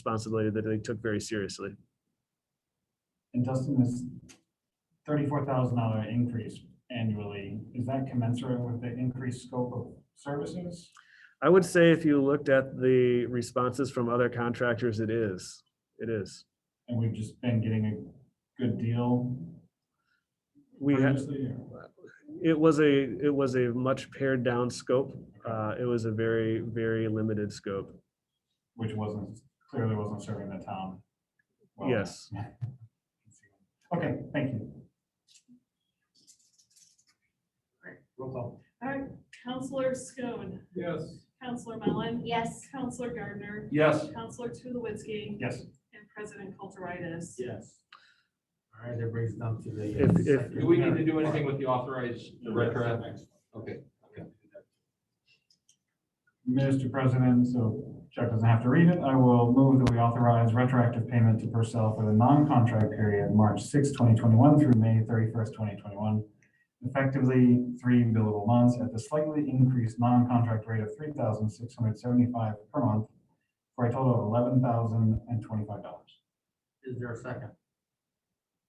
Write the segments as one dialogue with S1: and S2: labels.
S1: responsibility that they took very seriously.
S2: And Dustin, this thirty-four thousand dollar increase annually, is that commensurate with the increased scope of services?
S1: I would say if you looked at the responses from other contractors, it is, it is.
S2: And we've just been getting a good deal
S1: We had,
S2: previously? or-
S1: it was a, it was a much pared down scope. Uh, it was a very, very limited scope.
S2: which wasn't, clearly wasn't serving the town. well.
S1: Yes.
S2: Okay, thank you. Roll call.
S3: All right, Counselor Schoen,
S2: Yes.
S3: Counselor Mellon,
S4: Yes.
S3: Counselor Gardner,
S2: Yes.
S3: Counselor Tulowitzki,
S2: Yes.
S3: and President Kulturitis.
S5: Yes. All right, that brings it down to the. uh,
S1: If, if,
S5: second-
S6: Do we need to do anything with the authorized, the retroactive? Okay.
S2: Mr. President, so Chuck doesn't have to read it. I will move that we authorize retroactive payment to Purcell for the non-contract period, March 6, 2021 through May 31st, 2021, effectively three billable months at the slightly increased non-contract rate of $3,675 per month for a total of $11,025.
S5: Is there a second?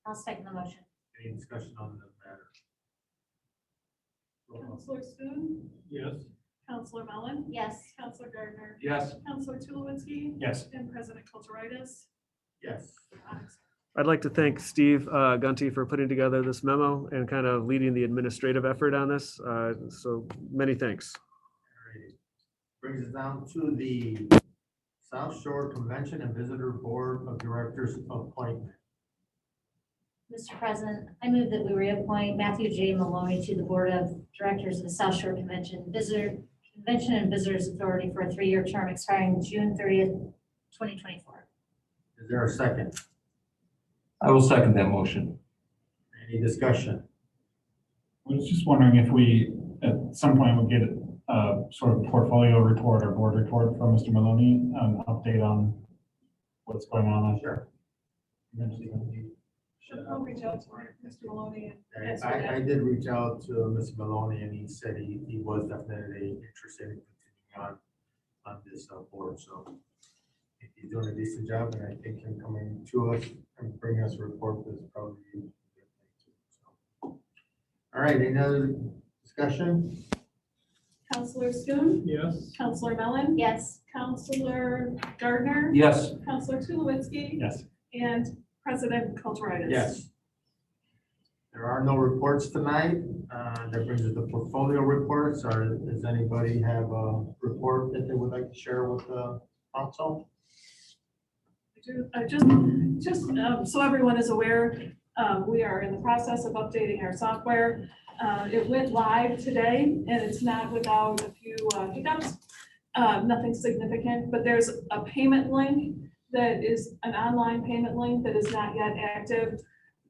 S4: I'll second the motion.
S5: Any discussion on the matter? Roll call.
S3: Counselor Schoen,
S6: Yes.
S3: Counselor Mellon,
S4: Yes.
S3: Counselor Gardner,
S6: Yes,
S3: Counselor Tulowitzki,
S2: Yes.
S3: and President Uh, Kulturitis.
S5: Yes.
S1: I'd like to thank Steve uh, Gunty for putting together this memo and kind of leading the administrative effort on this. Uh, So many thanks.
S5: Alrighty. Brings us down to the South Shore Convention and Visitor Board of Directors appointment.
S4: Mr. President, I move that we reappoint Matthew J. Maloney to the Board of Directors of the South Shore Convention Visitor, Convention and Visitors Authority for a three-year term expiring June thirtieth, twenty twenty-four.
S5: Is there a second?
S6: I will second that motion.
S5: Any discussion?
S2: I was just wondering if we, at some point, would get a sort of portfolio report or board report from Mr. Maloney, an update on what's going on.
S5: Sure.
S3: I'll reach out to Mr. Maloney and ask for
S5: I, I
S3: that.
S5: did reach out to Mr. Maloney and he said he, he was definitely interested in continuing on, on this uh, board, so. He's doing a decent job and I think him coming to us and bringing us a report is probably. a good thing too, so. All right, any other discussion?
S3: Counselor Schoen,
S6: Yes.
S3: Counselor Mellon,
S4: Yes.
S3: Counselor Gardner,
S6: Yes.
S3: Counselor Tulowitzki,
S2: Yes.
S3: and President Kulturitis.
S5: Yes. There are no reports tonight. Uh, that brings us to portfolio reports. Or does anybody have a report that they would like to share with the council?
S3: I do- I just, just um, so everyone is aware, um, we are in the process of updating our software. Uh, It went live today, and it's not without a few uh, hiccups, uh, nothing significant, but there's a payment link that is an online payment link that is not yet active.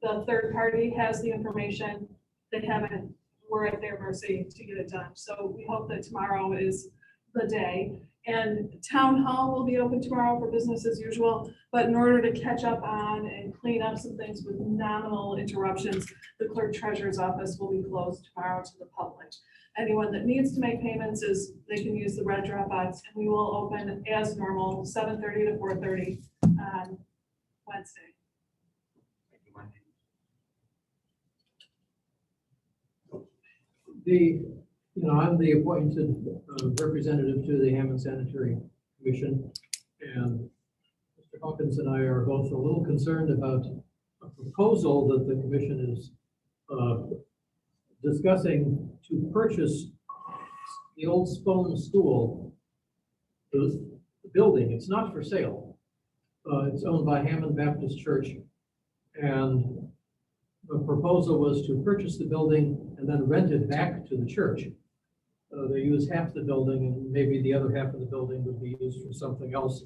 S3: The third party has the information. They haven't, we're at their mercy to get it done. So we hope that tomorrow is the day. And town hall will be open tomorrow for business as usual. But in order to catch up on and clean up some things with nominal interruptions, the clerk treasurer's office will be closed tomorrow to the public. Anyone that needs to make payments is, they can use the red drop box, and we will open as normal, seven thirty to four thirty on Wednesday.
S5: Thank you, Wendy.
S7: The, you know, I'm the appointed uh, representative to the Hammond Sanitary Commission. And Mr. Hawkins and I are both a little concerned about a proposal that the commission is uh, discussing to purchase the old Spone School, the the building. It's not for sale. Uh, It's owned by Hammond Baptist Church. And the proposal was to purchase the building and then rent it back to the church. Uh, They use half the building and maybe the other half of the building would be used for something else.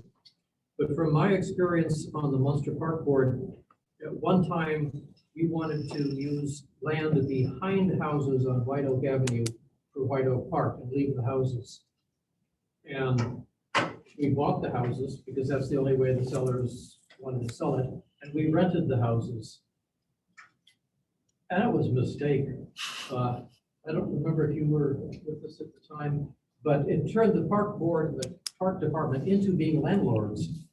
S7: But from my experience on the Munster Park Board, at one time, we wanted to use land behind houses on White Oak Avenue for White Oak Park and leave the houses. And we bought the houses because that's the only way the sellers wanted to sell it, and we rented the houses. That was a mistake. Uh, I don't remember if you were with us at the time, but it turned the park board and the park department into being landlords.